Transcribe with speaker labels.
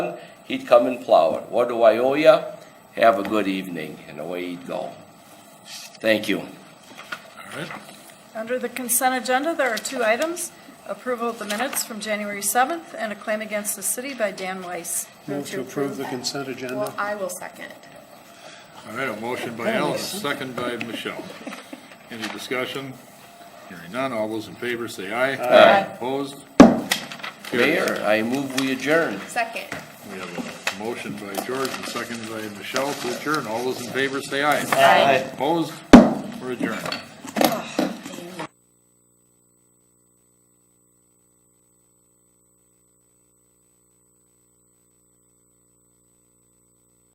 Speaker 1: done, he'd come and plow it. What do I owe ya? Have a good evening, and away he'd go. Thank you.
Speaker 2: All right.
Speaker 3: Under the consent agenda, there are two items, approval of the minutes from January 7th and a claim against the city by Dan Weiss.
Speaker 4: Move to approve the consent
Speaker 5: Well,
Speaker 4: agenda.
Speaker 5: I will second.
Speaker 2: All right, a motion by Alan, a second by Michelle. Any discussion? Hearing none, all those in favor say aye. Aye. Opposed? Carried.
Speaker 1: Mayor, I move we adjourn.
Speaker 5: Second.
Speaker 2: We have a motion by George and second by Michelle to adjourn. All those in favor say aye.
Speaker 5: Aye.
Speaker 2: Opposed? We're adjourned.